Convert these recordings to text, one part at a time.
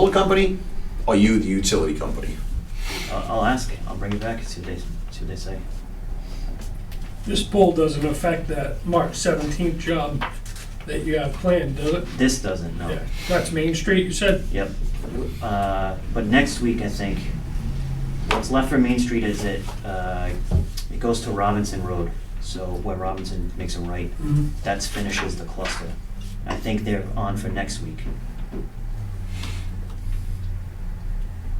solar company? Are you the utility company? I'll, I'll ask, I'll bring it back and see what they, see what they say. This poll doesn't affect that March seventeenth job that you have planned, does it? This doesn't, no. Yeah, That's Main Street, you said? Yep. Uh, But next week, I think, what's left for Main Street is it, uh, it goes to Robinson Road. So where Robinson makes a right, that finishes the cluster. I think they're on for next week.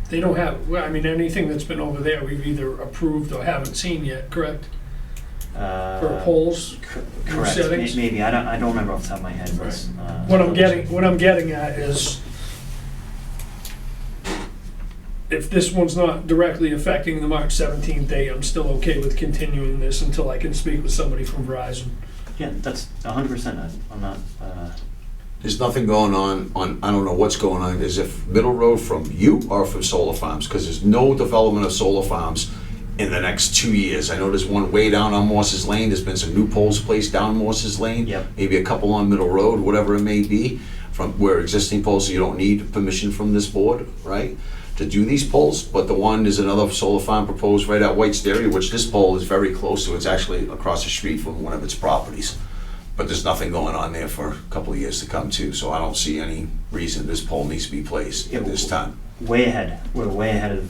They don't have, well, I mean, anything that's been over there, we've either approved or haven't seen yet, correct? For For polls? Uh, Correct, May- settings? maybe, I don't, I don't remember off the top of my head. but, uh, What I'm getting, what I'm getting at is if this one's not directly affecting the March seventeenth day, I'm still okay with continuing this until I can speak with somebody from Verizon. Yeah, that's a hundred percent, I- I'm not, uh, There's nothing going on, on, I don't know what's going on, is if Middle Road from you or from solar farms? Because there's no development of solar farms in the next two years. I know there's one way down on Morse's Lane, there's been some new poles placed down Morse's Lane. Yep. Maybe a couple on Middle Road, whatever it may be, from where existing poles, so you don't need permission from this board, right? To do these poles, but the one is another solar farm proposed right at White's Dairy, which this pole is very close to, it's actually across the street from one of its properties. But there's nothing going on there for a couple of years to come too, so I don't see any reason this pole needs to be placed at this time. way ahead, we're way ahead of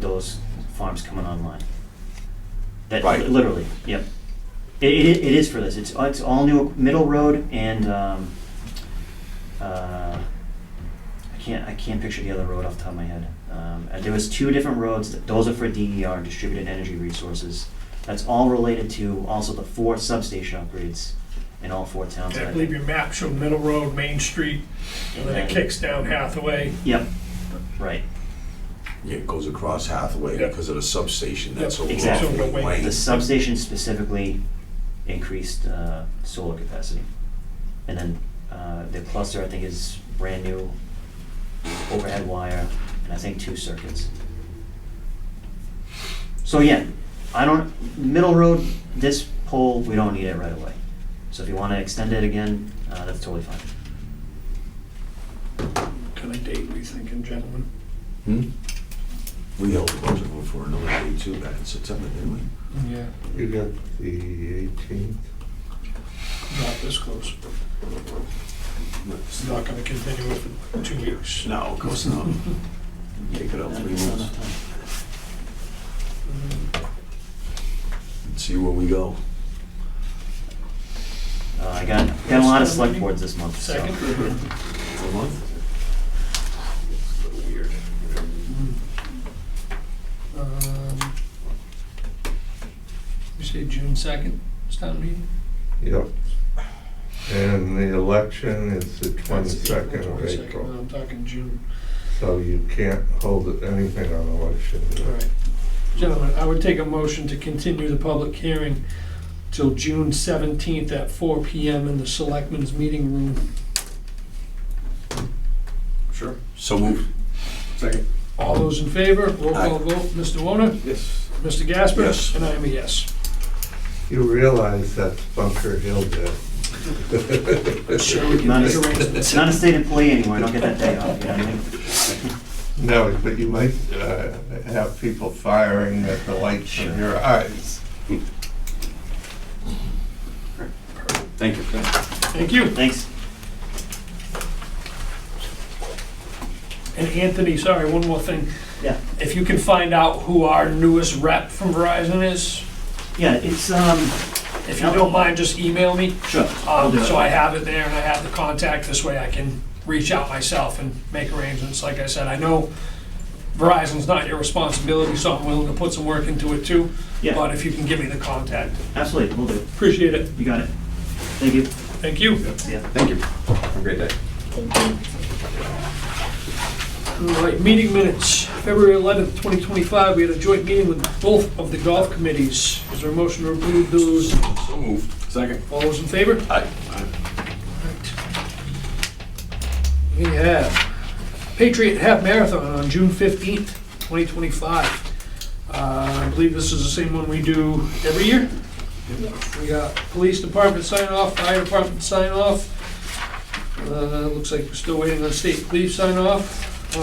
those farms coming online. That, Right. literally, yep. It, it, it is for this, it's, it's all new, Middle Road and, um, uh, I can't, I can't picture the other road off the top of my head. Um, and there was two different roads, those are for DER, Distributed Energy Resources. That's all related to also the four substation upgrades in all four towns. I believe your map showed Middle Road, Main Street, and then it kicks down Hathaway. Yep, right. Yeah, It goes across Hathaway Yeah. because of the substation that's Yeah, over exactly. off Wing Lane. The substation specifically increased uh, solar capacity. And then uh, the cluster, I think, is brand new overhead wire, and I think two circuits. So yeah, I don't, middle road, this pole, we don't need it right away. So if you want to extend it again, uh, that's totally fine. Kind of date we thinking, gentlemen? Hmm? We held a budget vote for another day too back in September, didn't we? Yeah. You got the 18th. Not this close. It's not gonna continue for two weeks. No, of course not. Take it out three months and see where we go. Uh, I got, got a lot of select boards this month, so. Second? For a month? Um, You say June second, it's town meeting? Yep. And the election is the 22nd of Twenty-second, April, I'm talking June. so you can't hold it- anything on election. day. All right. Gentlemen, I would take a motion to continue the public hearing till June seventeenth at four P M in the selectmen's meeting room. Sure. So moved. Second. All those in favor, roll Aye. call vote, Mr. Warner, Yes. Mr. Gasper? Yes. And I am a yes. You realize that's Bunker Hill Day. Sure, we can Not make a- arrangements. Not a state employee anymore, I don't get that day off, you know what I mean? No, but you might uh, have people firing at the lights in your eyes. Thank you. Thank you. Thanks. And Anthony, sorry, one more thing. Yeah. If you can find out who our newest rep from Verizon is, Yeah, it's, um, if you don't mind, just email me. sure. Um, do it. so I have it there and I have the contact, this way I can reach out myself and make arrangements. Like I said, I know Verizon's not your responsibility, so I'm willing to put some work into it too. Yeah, But if you can give me the contact, absolutely, we'll do. it. appreciate it. You got it. Thank you. Thank you. Yeah. Thank you. Have a great day. All right, meeting minutes, February 11th, 2025, we had a joint meeting with both of the golf committees. Is there a motion to approve those? So moved. Second. All those in favor? Aye. We have Patriot Half Marathon on June fifteenth, twenty twenty-five. Uh, I believe this is the same one we do every year. We got police department sign off, fire department sign off. Uh, looks like we're still waiting on state police sign off.